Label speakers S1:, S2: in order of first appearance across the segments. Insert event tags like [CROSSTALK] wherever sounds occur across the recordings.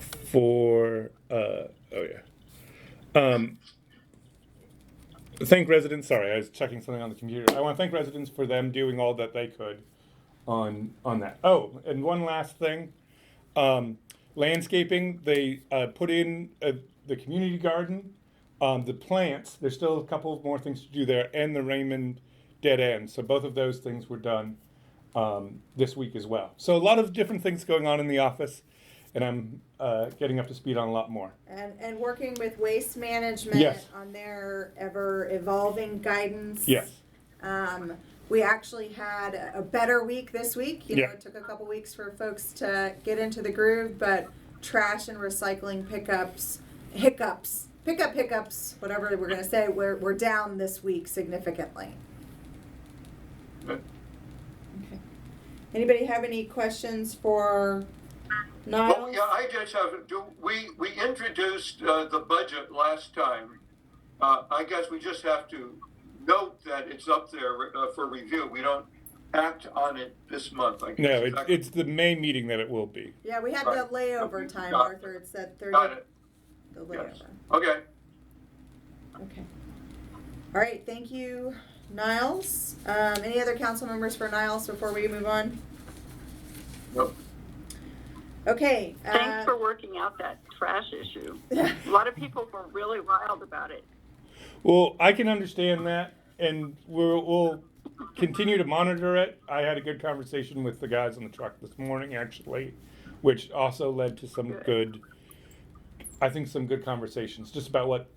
S1: for uh, oh yeah. Um, thank residents. Sorry, I was checking something on the computer. I want to thank residents for them doing all that they could on on that. Oh, and one last thing, um, landscaping. They uh, put in uh, the community garden, um, the plants. There's still a couple more things to do there, and the Raymond dead end. So both of those things were done um, this week as well. So a lot of different things going on in the office, and I'm uh, getting up to speed on a lot more.
S2: And, and working with waste management
S1: Yes.
S2: on their ever evolving guidance.
S1: Yes.
S2: Um, we actually had a a better week this week. You know,
S1: Yeah.
S2: it took a couple weeks for folks to get into the groove, but trash and recycling pickups, hiccups, pickup hiccups, whatever we're gonna say, we're, we're down this week significantly. Okay. Anybody have any questions for
S3: Well,
S2: Niles?
S3: yeah, I just have, do, we, we introduced, uh, the budget last time. Uh, I guess we just have to note that it's up there, uh, for review. We don't act on it this month, I guess.
S1: No,
S3: Is
S1: it,
S3: that-
S1: it's the May meeting that it will be.
S2: Yeah, we had the
S3: Right.
S2: layover time,
S3: Got it.
S2: Arthur, it said thirty,
S3: Got it,
S2: the
S3: yes.
S2: layover,
S3: Okay,
S2: okay. All right, thank you, Niles. Um, any other council members for Niles before we move on?
S3: Nope.
S2: Okay,
S4: Thanks
S2: uh,
S4: for working out that trash issue. A lot of people were really wild about it.
S1: Well, I can understand that, and we're, we'll continue to monitor it. I had a good conversation with the guys on the truck this morning, actually, which also led to some good, I think, some good conversations just about what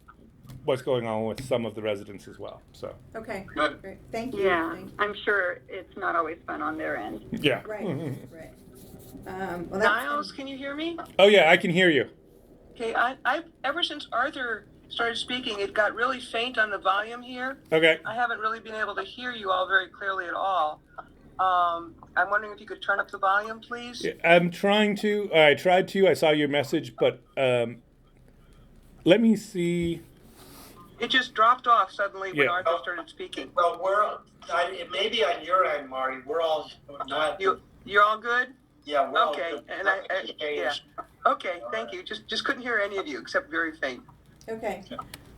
S1: what's going on with some of the residents as well. So,
S2: [LAUGHS] okay,
S3: good.
S2: great, thank you,
S4: Yeah,
S2: thank you.
S4: I'm sure it's not always fun on their end.
S1: yeah. Mm-hmm.
S2: Right, right. Um, well,
S5: Niles,
S2: that's,
S5: can you hear me?
S1: oh yeah, I can hear you.
S5: Okay, I, I ever since Arthur started speaking, it got really faint on the volume here.
S1: Okay.
S5: I haven't really been able to hear you all very clearly at all. Um, I'm wondering if you could turn up the volume, please.
S1: I'm trying to. I tried to. I saw your message, but um, let me see.
S5: It just dropped off suddenly when
S1: Yeah.
S5: Arthur started speaking.
S6: Well, we're, I, it may be on your end, Marty, we're all not,
S5: You you're all good?
S6: yeah,
S3: Oh,
S6: we're all.
S5: okay,
S6: good.
S5: and I- I- yeah. Okay, thank you. Just just couldn't hear any of you except very faint.
S2: okay.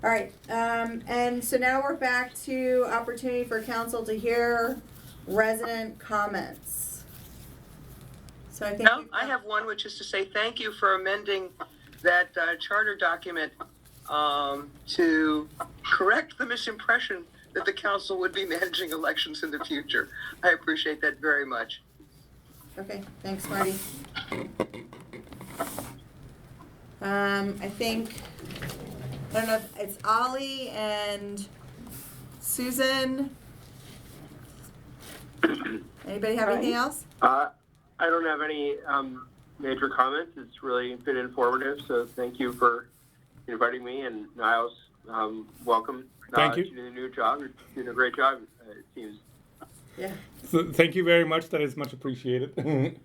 S2: All right, um, and so now we're back to opportunity for council to hear resident comments. So I think.
S5: No,
S2: we've
S5: I
S2: got-
S5: have one, which is to say thank you for amending that uh, charter document um, to correct the misimpression that the council would be managing elections in the future. I appreciate that very much.
S2: Okay, thanks, Marty. Um, I think, I don't know, if it's Ollie and Susan. Anybody have anything else?
S7: Uh, I don't have any um, major comments. It's really been informative, so thank you for inviting me. And Niles, um, welcome
S1: Thank
S7: uh,
S1: you.
S7: to the new job. You're doing a great job, uh, it seems.
S2: Yeah.
S1: So, thank you very much. That is much appreciated. [LAUGHS]
S7: Thanks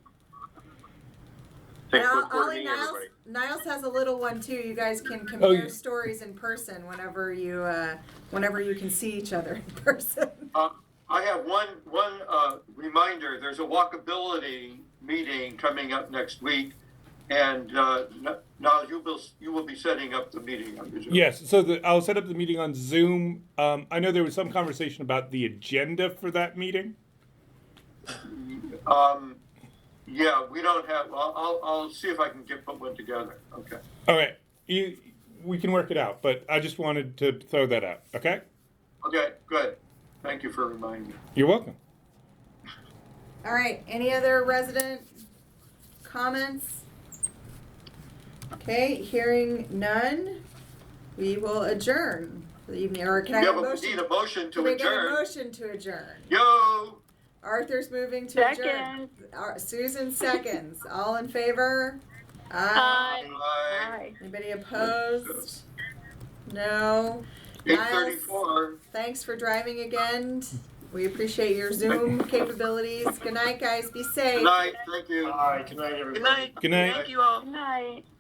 S2: Now,
S7: look forward to
S2: Ollie,
S7: meeting
S2: Niles,
S7: everybody.
S2: Niles has a little one too. You guys can
S1: Oh, yeah.
S2: compare stories in person whenever you, uh, whenever you can see each other in [LAUGHS] person.
S3: Uh, I have one, one, uh, reminder, there's a walkability meeting coming up next week. And, uh, N- now you will, you will be setting up the meeting, I presume.
S1: Yes, so the, I'll set up the meeting on Zoom. Um, I know there was some conversation about the agenda for that meeting.
S3: Um, yeah, we don't have, I'll, I'll, I'll see if I can get put one together, okay.
S1: All right, you, we can work it out, but I just wanted to throw that out. Okay,
S3: Okay, good. Thank you for reminding me.
S1: you're welcome.
S2: All right, any other resident comments? Okay, hearing none, we will adjourn for the evening, or can I
S3: Yeah,
S2: have a
S3: but we
S2: motion?
S3: need a motion
S2: Can
S3: to
S2: we get a
S3: adjourn.
S2: motion to adjourn?
S3: Yo,
S2: Arthur's moving to adjourn.
S4: Second,
S2: Ar- Susan seconds, all in favor? Aye.
S4: hi.
S3: bye.
S4: Hi.
S2: Anybody opposed? No,
S3: Eight thirty-four.
S2: thanks for driving again, we appreciate your
S3: [LAUGHS]
S2: Zoom capabilities, good night, guys, be safe.
S3: Good night, thank you.
S6: All right, good night, everybody.
S5: Good night.
S1: Good night.
S5: Thank you all.
S4: Good night.